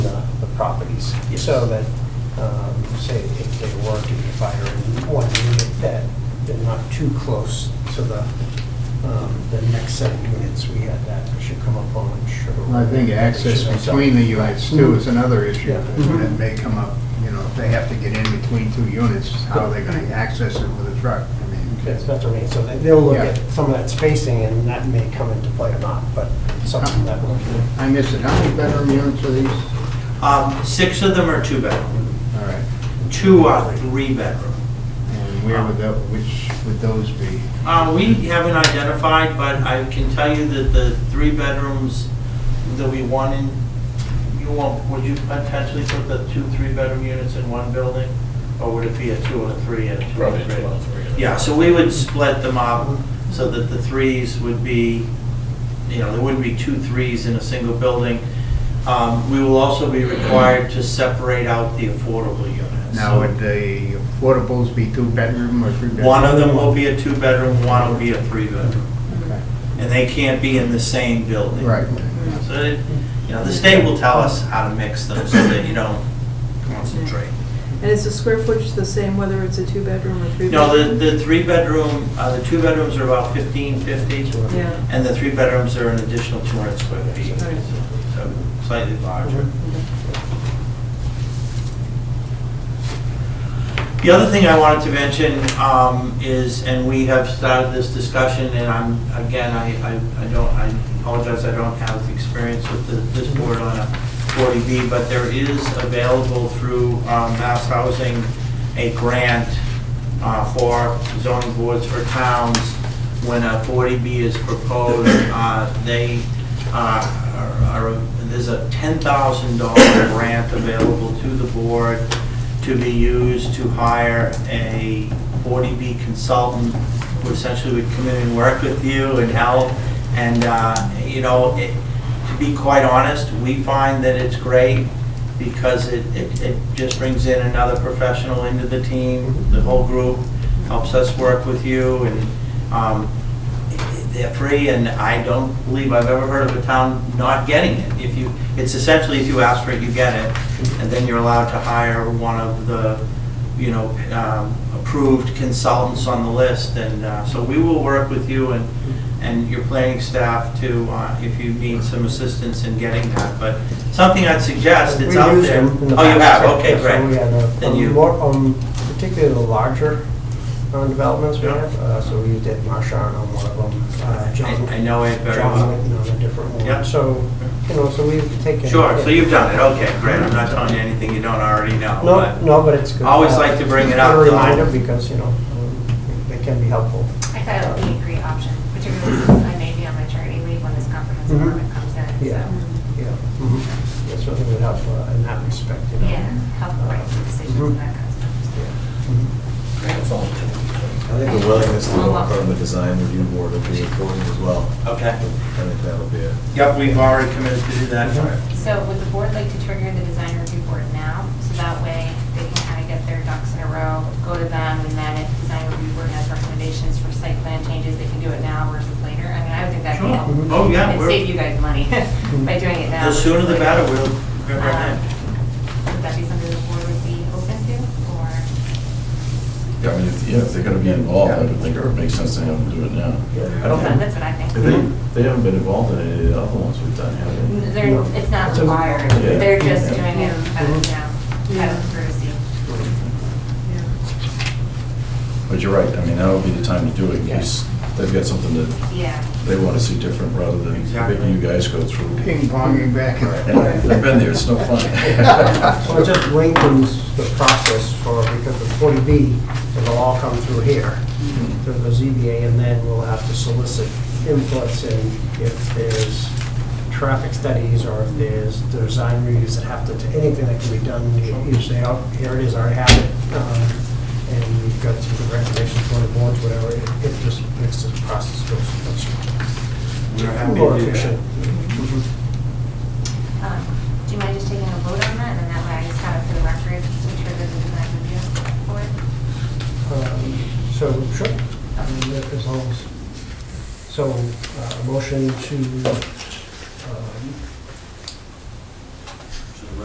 properties. Yes. So that, um, say, if they were to be fire in one unit, that they're not too close to the, um, the next set of units. We had that, we should come up on, sure. Well, I think access between the units too is another issue Yeah. that may come up, you know, if they have to get in between two units, how are they gonna access it with a truck? I mean, That's that's what I mean, so they- they'll look Yeah. at some of that spacing, and that may come into play or not, but something that Uh-huh. we'll do. I missed it, how many bedroom units are these? All Um, Six of them are two-bedroom, right, two are three-bedroom. and where would that, which would those be? Uh, We haven't identified, but I can tell you that the three bedrooms that we want in, you won't, would you potentially put the two three-bedroom units in one building? Or would it be a two and a three and a two and Probably a three? two out of three. Yeah, so we would split them up so that the threes would be, you know, there wouldn't be two threes in a single building. Um, We will also be required to separate out the affordable units. Now, would the affordables be two bedroom or three bedroom? One of them will be a two-bedroom, one will be a three-bedroom. Okay. and they can't be in the same building. Right, So, it- you know, the state will tell us how to mix them so that you don't concentrate. And is the square footage the same whether it's a two-bedroom or three-bedroom? No, the, the three-bedroom, uh, the two bedrooms are about fifteen fifty, Yeah. and the three bedrooms are an additional two hundred square feet, Right. so slightly larger. The other thing I wanted to mention um, is, and we have started this discussion, and I'm, again, I, I I don't, I apologize, I don't have experience with the- this board on a 40B, but there is available through um, Mass Housing a grant uh, for zoning boards for towns. When a 40B is proposed, uh, they uh, are, are- there's a $10,000 grant available to the board to be used to hire a 40B consultant who essentially would come in and work with you and help. And, uh, you know, it- to be quite honest, we find that it's great because it, it it just brings in another professional into the team, the whole group, helps us work with you and um, they're free, and I don't believe I've ever heard of a town not getting it. If you, it's essentially if you ask for it, you get it, and then you're allowed to hire one of the, you know, um, approved consultants on the list, and uh, so we will work with you and, and your planning staff to, uh, if you need some assistance in getting that, but something I'd suggest, it's We out use there. them in the Oh, you past, have, okay, yeah, so we great. had a- Then um, you- more, um, particularly the larger um, developments we Yeah. have, uh, so we used Ed Marshawn on one of them, uh, John. I I know it very John well. Whitten on a different one. Yeah. So, you know, so we've taken. Sure, so you've done it, okay, great, I'm not telling you anything you don't already know, No, but- no, but it's good. Always Uh, like to bring it's it up, A though. reminder, because, you know, um, they can be helpful. I thought it would be a great option, particularly since I may be on maternity leave when this comprehensive Mhm. permit comes in, Yeah. so, Yeah. Mm-hmm. mhm. It certainly would help uh, in that respect, you know. yeah, help write some decisions Mhm. and that kind of stuff. Yeah. Mhm. That's all. I think the willingness to go in front of the design review board would be important as well. Okay. I think that'll be it. Yep, we've already committed to do that. So would the board like to trigger the design review board now? So that way they can kind of get their ducks in a row, go to them, and then if design review board has recommendations for site plan changes, they can do it now versus later. I mean, I would think that'd be Sure. helpful. Mhm. Oh, yeah, And we're- save you guys money by doing it now. The sooner the versus better, later. we'll grab our Um, hand. Would that be something the board would be open to, or? Yeah, I mean, if- yeah, if they're gonna be involved, I would think it would make sense to have them do it now. I don't think- That's what I If think. They, they haven't been involved in any of the other ones we've done, have N- They're, it's not It's a- required, Yeah. they're just Yeah. doing it out of, Yeah. you know, out Yeah. of courtesy. Yeah. they? But you're right, I mean, now would be the time to do it, in case they've got something that Yeah. they wanna see different rather than making you guys go through. Ping ponging back and And I've been there, it's no Well, it fun. just lengthens the process for, because the 40B, it'll all come through here, through the ZBA, and then we'll have to solicit inputs and if there's traffic studies or if there's design reviews that have to, anything that can be done, you you say, oh, here it is, I already have it. um, And you've got some good recommendations for the boards, whatever, it it just makes the process go much We're happy more to do that. efficient. Mhm. Um, Do you mind just taking a vote on that, and then that way I just have it for the record, to trigger the design review board? Um, So, sure, I mean, that is all. So, uh, motion to um,